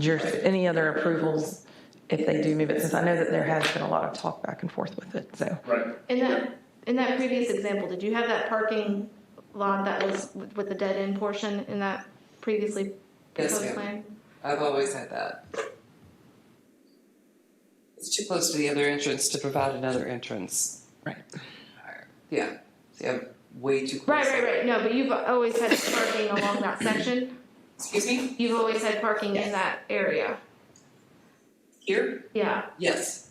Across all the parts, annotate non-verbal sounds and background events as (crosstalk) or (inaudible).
your, any other approvals if they do move it, since I know that there has been a lot of talk back and forth with it, so. Right. In that, in that previous example, did you have that parking lot that was with with the dead end portion in that previously Yes, proposed ma'am. plan? I've always had that. It's too close to the other entrance to provide another entrance. Right. Yeah, yeah, way too close. Right, right, right, no, but you've always had parking along that section, Excuse me, you've always had parking in Yes. that area, here? yeah. Yes.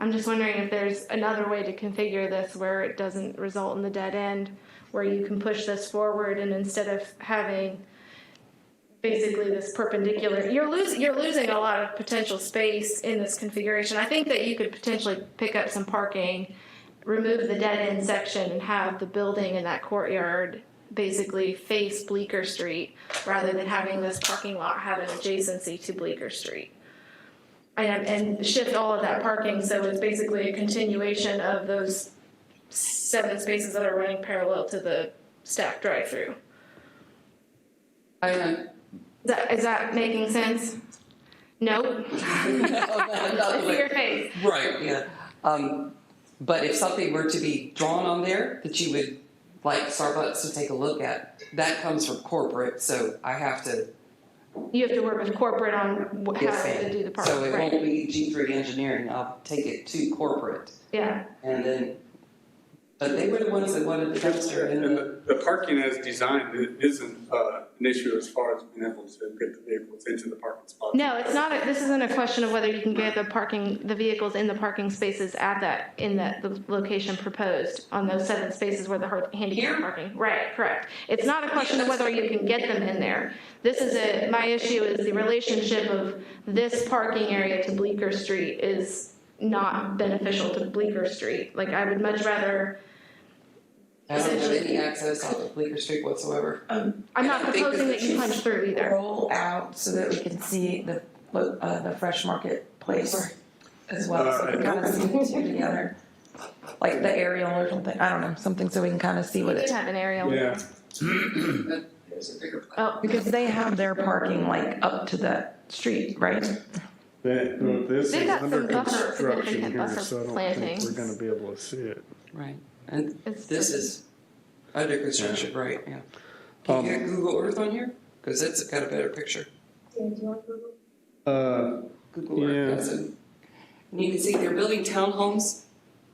I'm just wondering if there's another way to configure this where it doesn't result in the dead end, where you can push this forward and instead of having basically this perpendicular, you're losing, you're losing a lot of potential space in this configuration. I think that you could potentially pick up some parking, remove the dead end section and have the building in that courtyard basically face Bleecker Street rather than having this parking lot have an adjacency to Bleecker Street and, and shift all of that parking, so it's basically a continuation of those seven spaces that are running parallel to the stack drive-through. I am. Is that, is that making sense? (laughs) No? Not I the see your way. face. Right, yeah. Um, but if something were to be drawn on there that you would like Starbucks to take a look at, that comes from corporate, so I have to. You have to work with corporate on wh- how yes, ma'am. to do the So parking, it won't right? be G three engineering, I'll take it to corporate. Yeah, And then, but they were the ones that wanted the dumpster in And the, the, the parking as designed i- isn't, uh, an issue as far as being able to get the vehicles into the parking spot. no, it's not, a- this isn't a question of whether you can get the parking, the vehicles in the parking spaces at that, in that, the location proposed on those seven spaces where the har- handicap Here? parking. Right, correct. It's not a question of whether you can get them in there. This is a, my issue is the relationship of this parking area to Bleecker Street is not beneficial to Bleecker Street. Like, I would much rather, I don't have any access on the Bleecker Street whatsoever. (clears throat) I'm not I think that proposing that you she's- punch through either. Roll out so that we can see the, lo- uh, the fresh market place as well, so we can kind of see the two together. Like the aerial or something, I don't know, something so we can kind of see We what it, do have an aerial. Yeah, There's a bigger plan. Oh, because they have their parking like up to that street, right? That, well, this They've is got under some buffer, construction significant here, buffer so I don't think plantings. we're gonna be able to see it. Right, and It's this just- is under construction, right, yeah. Can you get Google Earth on here? Cause it's got a better picture. Uh, Google Earth Yeah. does it. And you can see they're building townhomes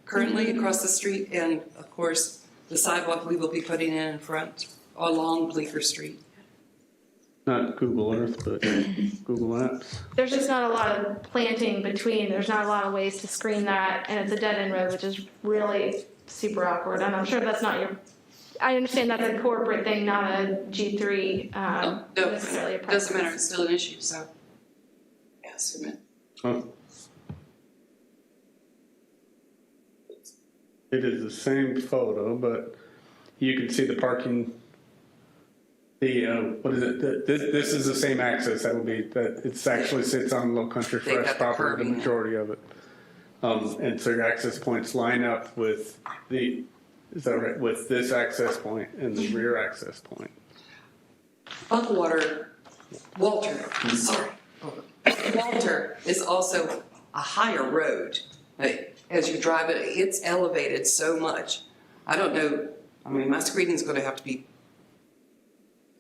currently across the street and of course, the sidewalk we will be putting in in front along Bleecker Street. not Google Earth, but Google Maps. there's just not a lot of planting between. There's not a lot of ways to screen that, and it's a dead end road, which is really super awkward. And I'm sure that's not your. I understand that's a corporate thing, not a G three um, Oh, no, necessarily a it doesn't matter, practice. it's still an issue, so. Yeah, zoom in. Huh. It is the same photo, but you can see the parking. The, uh, what is it? The- This, this is the same access that would be, that it actually sits on Low Country They got Fresh the property, the curbing. majority of it. Um, and so your access points line up with the, is that right, with this access point and the rear access point. Buckwater, Walter, sorry, Walter is also a higher road. Like, As you drive it, it's elevated so much. I don't know, I mean, my screening's gonna have to be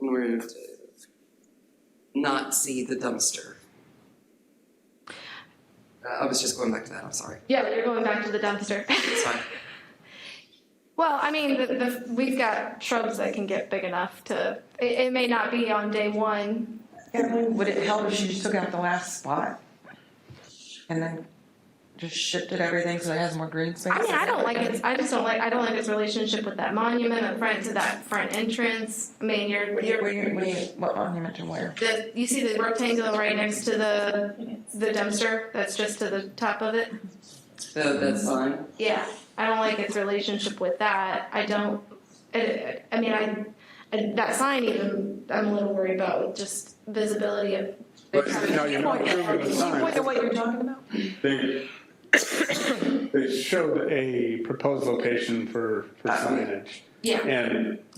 in order to not see the dumpster. Uh, I was just going back to that, I'm sorry. Yeah, but you're going back to the dumpster. (laughs) It's fine. well, I mean, the, the, we've got shrubs that can get big enough to. It, it may not be on day one. Would it help if you just took out the last spot? And then just shifted everything so it has more green space? I mean, I don't like its. I just don't like. I don't like its relationship with that monument in front to that front entrance. I mean, you're What do you, you're what do you, what do you, what monument and where? The, you see the rectangle right next to the, the dumpster that's just to the top of it? So that's fine. Yeah. I don't like its relationship with that. I don't, I, I mean, I, I, that sign even, I'm a little worried about with just visibility of. But now you're not approving the sign. what you're talking about? They, they showed a proposed location for, for signage. Yeah. And